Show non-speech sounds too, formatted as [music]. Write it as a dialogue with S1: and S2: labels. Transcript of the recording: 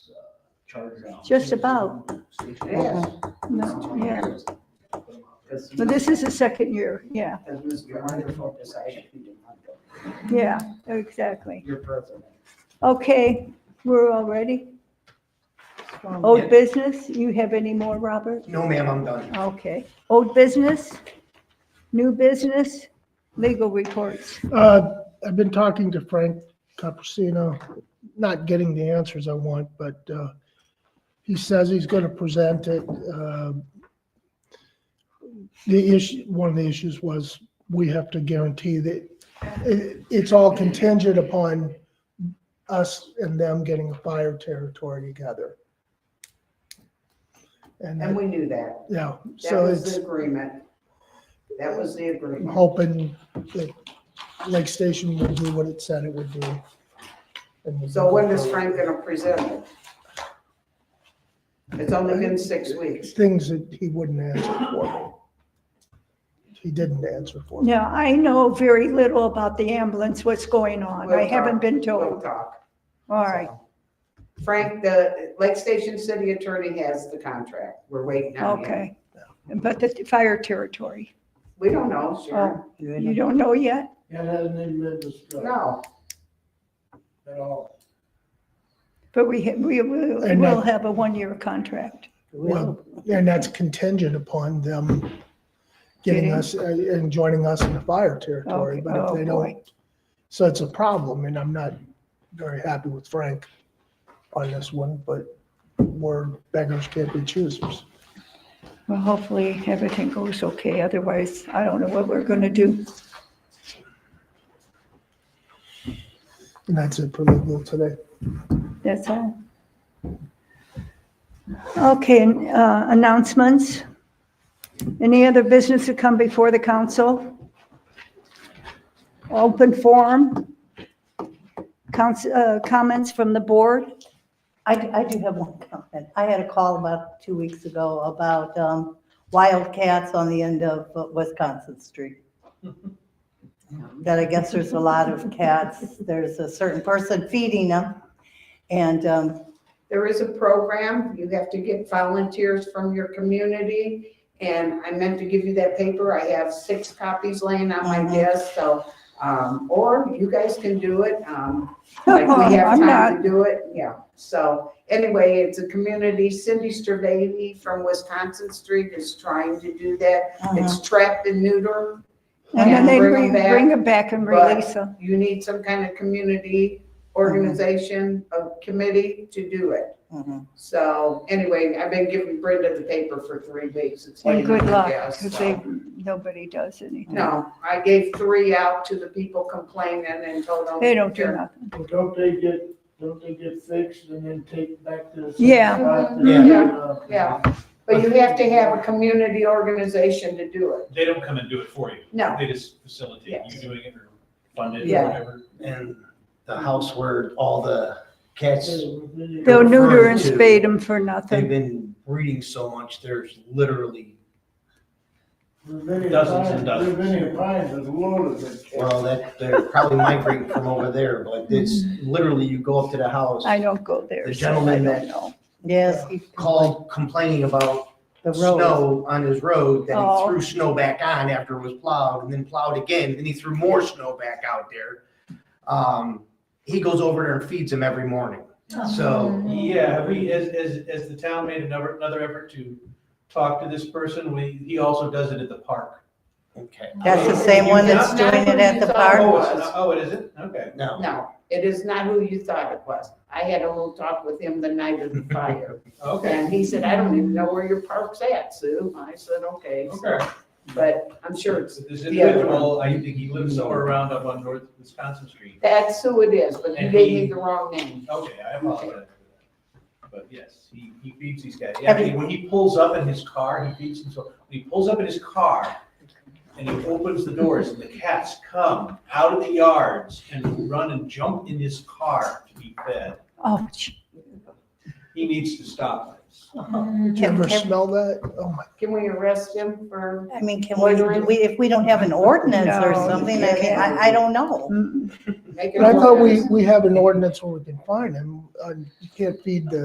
S1: uh, charged out.
S2: Just about. Uh-huh.
S1: Yes.
S2: No, yeah. But this is the second year, yeah,
S3: Because Ms. Grinder focused on educating her.
S2: yeah, exactly.
S3: Your president.
S2: Okay, we're all ready? Old business, you have any more, Robert?
S3: No, ma'am, I'm done.
S2: Okay, old business, new business, legal reports.
S4: Uh, I've been talking to Frank Caprusino, not getting the answers I want, but uh, he says he's going to present it. Um, The issue, one of the issues was we have to guarantee that it- it's all contingent upon us and them getting a fire territory together.
S3: And
S4: And, that-
S3: we knew that.
S4: yeah,
S3: That
S4: so
S3: was
S4: it's,
S3: the agreement. That was the
S4: I'm
S3: agreement.
S4: hoping that Lake Station will do what it said it would do. And we'll
S3: So when
S4: go
S3: is
S4: forward.
S3: Frank gonna present it? It's only been six weeks.
S4: Things that he wouldn't answer for me. He didn't answer for me.
S2: Now, I know very little about the ambulance, what's going on. I
S3: We'll
S2: haven't
S3: talk.
S2: been
S3: We'll
S2: told.
S3: talk.
S2: All right,
S3: Frank, the Lake Station City Attorney has the contract. We're waiting on him.
S2: okay. But the fire territory,
S3: We don't know, Sharon.
S2: you don't know yet?
S1: It hasn't even been
S2: Oh.
S1: discussed
S3: No.
S1: at all.
S2: But we, ha- we will,
S4: And
S2: will
S4: that-
S2: have a one-year contract.
S4: Well, and that's contingent upon them getting
S2: Getting-
S4: us uh, and joining us in the fire territory,
S2: Okay,
S4: but if
S2: oh,
S4: they
S2: boy.
S4: don't, so it's a problem, and I'm not very happy with Frank on this one, but we're beggars can't be choosers.
S2: Well, hopefully everything goes okay, otherwise I don't know what we're gonna do.
S4: And that's it for legal today.
S2: That's all. Okay, and, uh, announcements? Any other business to come before the council? Open forum? Council, uh, comments from the board?
S5: I, I do have one comment. I had a call about two weeks ago about um, wildcats on the end of Wisconsin Street. That I guess there's a lot of cats. There's a certain person feeding them. And um,
S3: There is a program, you have to get volunteers from your community, and I meant to give you that paper, I have six copies laying on my
S2: Uh-huh.
S5: Mhm.
S3: desk, so, um, or you guys can do it,
S2: [laughs]
S3: um, like we have
S2: I'm not,
S3: time to do it, yeah. So, anyway, it's a community, Cindy Stravady from Wisconsin Street is trying to do that,
S5: uh,
S2: Uh-huh.
S3: it's trap and neuter,
S2: and then
S3: Yeah,
S2: they
S3: bring
S2: bring,
S3: 'em back,
S2: bring it back and
S3: but-
S2: release them.
S3: you need some kind of community
S2: Uh-huh.
S3: organization, a committee to do it.
S5: mhm.
S3: So anyway, I've been giving Brenda the paper for three weeks. It's
S2: And
S3: laying
S2: good
S3: on my
S2: luck,
S3: desk,
S2: because
S3: so-
S2: they, nobody does anything.
S3: No, I gave three out to the people complaining and told them.
S2: They don't do nothing.
S1: Well, Don't they get, don't they get fixed and then take back to the? same
S2: Yeah.
S1: spot that- uh,
S3: Yeah. Yeah. But you have to have a community organization to do it.
S6: They don't come and do it for you.
S3: No.
S6: They just facilitate you
S3: Yes.
S6: doing it or fund it
S3: Yeah.
S6: or whatever.
S7: And the house where all the cats,
S2: They'll neuter and
S7: Referring to-
S2: spade them for
S7: they've
S2: nothing.
S7: been breeding so much, there's literally,
S6: Dozens and dozens.
S1: Ravinia pines is loaded with cats.
S7: well, that, they're probably migrating from over there, but it's literally, you go up to the house,
S2: I don't go there,
S7: The
S2: so I
S7: gentleman-
S2: don't know.
S5: Yes. he-
S7: called complaining about
S5: The road.
S7: snow on his road, then
S2: Oh.
S7: he threw snow back on after it was plowed, and then plowed again, then he threw more snow back out there. Um, he goes over there and feeds them every morning, so,
S8: Yeah, have we, as, as, as the town made another, another effort to talk to this person, we, he also does it at the park.
S7: okay,
S5: That's the same one that's doing it at the
S3: Pardon?
S5: park.
S8: Oh, it's not- oh, it isn't? Okay.
S7: no,
S3: No, it is not who you thought it was. I had a little talk with him the night
S8: [laughs]
S3: of the fire.
S8: Okay,
S3: And he said, I don't even know where your park's at, Sue. I said, okay,
S8: okay.
S3: but I'm sure it's,
S8: So This
S3: The other one.
S8: individual, I think he lives somewhere around up on North Wisconsin Street.
S3: that's who it is, but you
S8: And
S3: gave
S8: he-
S3: me the wrong name.
S8: Okay, I apologize. But yes, he, he feeds these guys. Yeah, I mean, when he pulls up in his car, he feeds himself. When he pulls up in his car and he opens the doors and the cats come out of the yards and run and jump in his car to be fed.
S2: Oh, gee,
S8: He needs to stop this.
S4: Did you
S5: Can-
S4: ever
S5: can-
S4: smell that? Oh, my
S3: Can we arrest him for?
S5: I mean, can we, do we, if we don't have an ordinance or
S2: No,
S5: something,
S3: you
S5: I mean,
S3: can't.
S5: I, I don't know.
S2: mm-mm.
S3: making
S4: But I thought we,
S3: orders?
S4: we have an ordinance where we can fine him, uh, you can't feed the